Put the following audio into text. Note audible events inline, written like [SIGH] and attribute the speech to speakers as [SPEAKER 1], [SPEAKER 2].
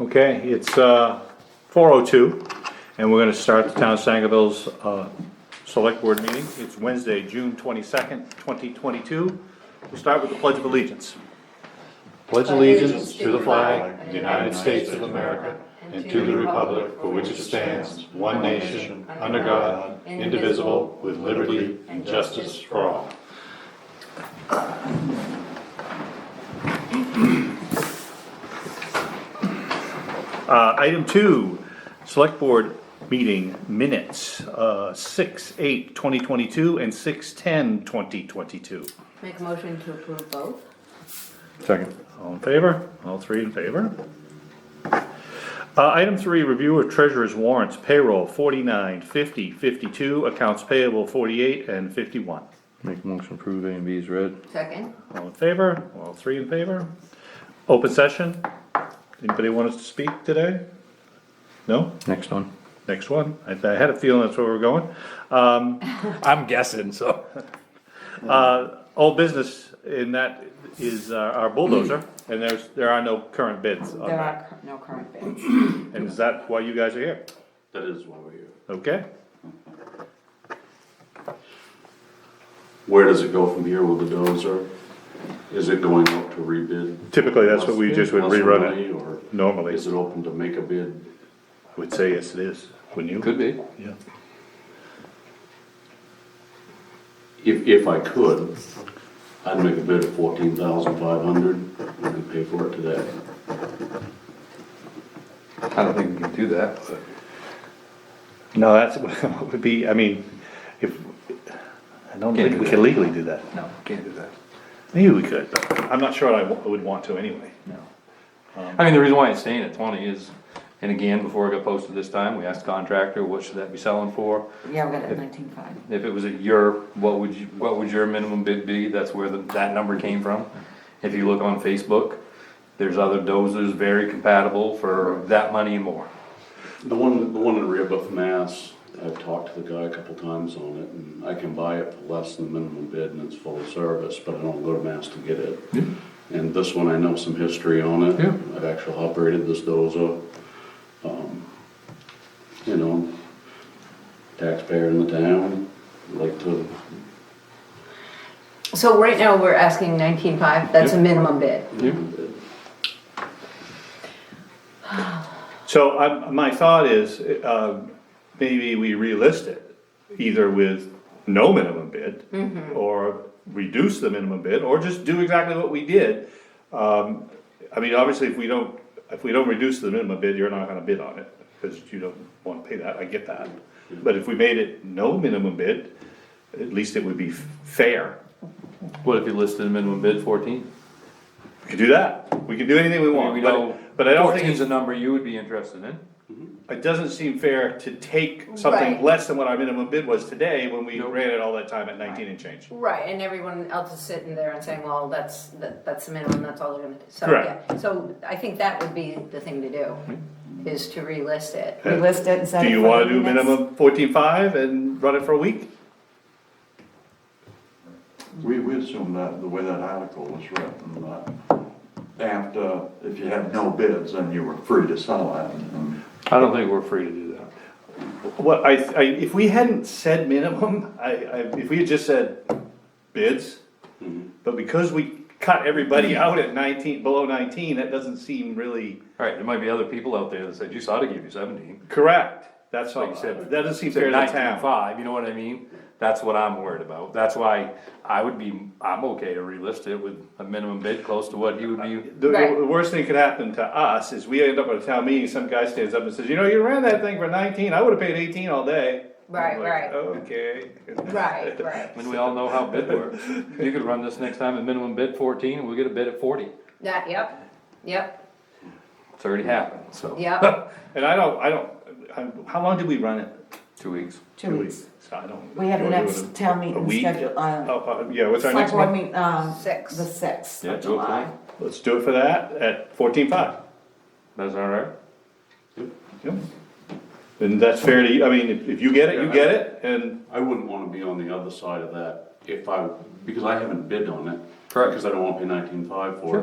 [SPEAKER 1] Okay, it's uh, 4:02, and we're gonna start the Town of Sangerville's uh, Select Board meeting. It's Wednesday, June 22nd, 2022. We'll start with the Pledge of Allegiance.
[SPEAKER 2] Pledge allegiance to the flag of the United States of America and to the republic for which it stands, one nation, under God, indivisible, with liberty and justice for all.
[SPEAKER 1] Uh, Item two, Select Board meeting minutes, uh, 6/8/2022 and 6/10/2022.
[SPEAKER 3] Make a motion to approve both.
[SPEAKER 1] Second. All in favor? All three in favor? Uh, item three, review of treasurer's warrants, payroll 49, 50, 52, accounts payable forty-eight and fifty-one.
[SPEAKER 4] Make a motion to approve A and B is read.
[SPEAKER 3] Second,
[SPEAKER 1] All in favor? All three in favor? Open session? Anybody want us to speak today? No?
[SPEAKER 4] Next one.
[SPEAKER 1] Next one? I, I had a feeling that's where we're going. Um,
[SPEAKER 5] [LAUGHS] I'm guessing, so.
[SPEAKER 1] [LAUGHS] uh, all business in that is uh, our bulldozer, and there's, there are no current bids on
[SPEAKER 3] there
[SPEAKER 1] that.
[SPEAKER 3] are cur- no current bids.
[SPEAKER 1] And is that why you guys are here?
[SPEAKER 2] That is why we're here.
[SPEAKER 1] Okay?
[SPEAKER 2] Where does it go from here with the dozer? Is it going up to rebid?
[SPEAKER 1] Typically, that's what we just would
[SPEAKER 2] Plus
[SPEAKER 1] rerun it
[SPEAKER 2] money, Or
[SPEAKER 1] normally.
[SPEAKER 2] is it open to make a bid?
[SPEAKER 1] I would say yes, it is, wouldn't you?
[SPEAKER 4] Could be.
[SPEAKER 1] Yeah.
[SPEAKER 2] If, if I could, I'd make a bid of fourteen thousand five hundred and pay for it today.
[SPEAKER 4] I don't think we can do that, but.
[SPEAKER 1] No, that's, [LAUGHS] would be, I mean, if, I don't think
[SPEAKER 4] Can't do
[SPEAKER 1] we
[SPEAKER 4] that.
[SPEAKER 1] can legally do that.
[SPEAKER 4] No, can't do that.
[SPEAKER 1] Maybe we could, but I'm not sure I wa- would want to anyway.
[SPEAKER 4] No. I mean, the reason why it's staying at twenty is, and again, before it got posted this time, we asked the contractor, what should that be selling for?
[SPEAKER 3] Yeah, we got it at nineteen-five.
[SPEAKER 4] If it was at your, what would you, what would your minimum bid be? That's where the, that number came from. If you look on Facebook, there's other dozers very compatible for that money and more.
[SPEAKER 2] The one, the one in Rehoboth, Mass, I've talked to the guy a couple times on it, and I can buy it for less than the minimum bid, and it's full of service, but I don't go to Mass to get it. And this one, I know some history on it.
[SPEAKER 4] Yeah.
[SPEAKER 2] I've actually operated this dozer. Um, You know, taxpayer in the town, like to,
[SPEAKER 3] So right now, we're asking nineteen-five, that's a minimum bid.
[SPEAKER 1] So I, my thought is, uh, maybe we relist it, either with no minimum bid, or reduce the minimum bid, or just do exactly what we did. Um, I mean, obviously, if we don't, if we don't reduce the minimum bid, you're not gonna bid on it, because you don't wanna pay that, I get that. But if we made it no minimum bid, at least it would be fair.
[SPEAKER 4] What if you listed a minimum bid fourteen?
[SPEAKER 1] We could do that, we could do anything we want,
[SPEAKER 4] We know
[SPEAKER 1] but, but I don't think
[SPEAKER 4] Fourteen's
[SPEAKER 1] it's
[SPEAKER 4] a number you would be interested in.
[SPEAKER 1] it doesn't seem fair to take something
[SPEAKER 3] Right.
[SPEAKER 1] less than what our minimum bid was today when we
[SPEAKER 4] Nope.
[SPEAKER 1] ran it all that time at nineteen and change.
[SPEAKER 3] Right, and everyone else is sitting there and saying, well, that's, that, that's the minimum, that's all they're gonna do. So,
[SPEAKER 1] Correct.
[SPEAKER 3] yeah. So I think that would be the thing to do, is to relist it.
[SPEAKER 1] Yeah.
[SPEAKER 6] Relist it and set
[SPEAKER 1] Do
[SPEAKER 6] it
[SPEAKER 1] you
[SPEAKER 6] for
[SPEAKER 1] wanna
[SPEAKER 6] the
[SPEAKER 1] do
[SPEAKER 6] next-
[SPEAKER 1] minimum fourteen-five and run it for a week?
[SPEAKER 7] We, we assume that the way that article was written, that after, if you had no bids, then you were free to sell it. and-
[SPEAKER 4] I don't think we're free to do that.
[SPEAKER 1] What I, I, if we hadn't said minimum, [LAUGHS] I, I, if we had just said bids,
[SPEAKER 4] Mm-hmm.
[SPEAKER 1] but because we cut everybody out at nineteen, below nineteen, that doesn't seem really
[SPEAKER 4] Alright, there might be other people out there that said, you saw to give you seventeen.
[SPEAKER 1] correct. That's all,
[SPEAKER 4] Like you said,
[SPEAKER 1] that doesn't seem
[SPEAKER 4] Say
[SPEAKER 1] fair to the
[SPEAKER 4] 19.5,
[SPEAKER 1] town.
[SPEAKER 4] you know what I mean? That's what I'm worried about. That's why I would be, I'm okay to relist it with a minimum bid close to what he would be.
[SPEAKER 1] The,
[SPEAKER 3] Right.
[SPEAKER 1] the worst thing could happen to us is we end up at a town meeting, some guy stands up and says, you know, you ran that thing for nineteen, I would've paid eighteen all day.
[SPEAKER 3] Right,
[SPEAKER 1] I'm like,
[SPEAKER 3] right.
[SPEAKER 1] Okay.
[SPEAKER 3] Right, right.
[SPEAKER 4] And we all know how bid works. You could run this next time at minimum bid fourteen, and we'll get a bid at forty.
[SPEAKER 3] That, yep, yep,
[SPEAKER 4] It's already happened, so.
[SPEAKER 3] yep.
[SPEAKER 1] And I don't, I don't, I'm- how long did we run it?
[SPEAKER 4] Two weeks.
[SPEAKER 6] Two weeks.
[SPEAKER 1] So I don't.
[SPEAKER 6] We have the
[SPEAKER 1] do I do
[SPEAKER 6] next
[SPEAKER 1] it
[SPEAKER 6] town
[SPEAKER 1] in a
[SPEAKER 6] meeting
[SPEAKER 1] week?
[SPEAKER 6] scheduled, uh,
[SPEAKER 1] Oh, uh, yeah, what's our
[SPEAKER 6] select
[SPEAKER 1] next
[SPEAKER 6] board
[SPEAKER 1] one?
[SPEAKER 6] meeting, um,
[SPEAKER 3] Six.
[SPEAKER 6] the sixth
[SPEAKER 4] Yeah,
[SPEAKER 6] of
[SPEAKER 4] two o'clock.
[SPEAKER 6] July.
[SPEAKER 1] Let's do it for that at fourteen five.
[SPEAKER 4] That's alright?
[SPEAKER 1] Yep. And that's fair to, you. I mean, if if you get it, you
[SPEAKER 2] Yeah.
[SPEAKER 1] get it, and
[SPEAKER 2] I wouldn't wanna be on the other side of that if I, because I haven't bid on it.
[SPEAKER 4] Correct.
[SPEAKER 2] Because I don't wanna pay nineteen five for it.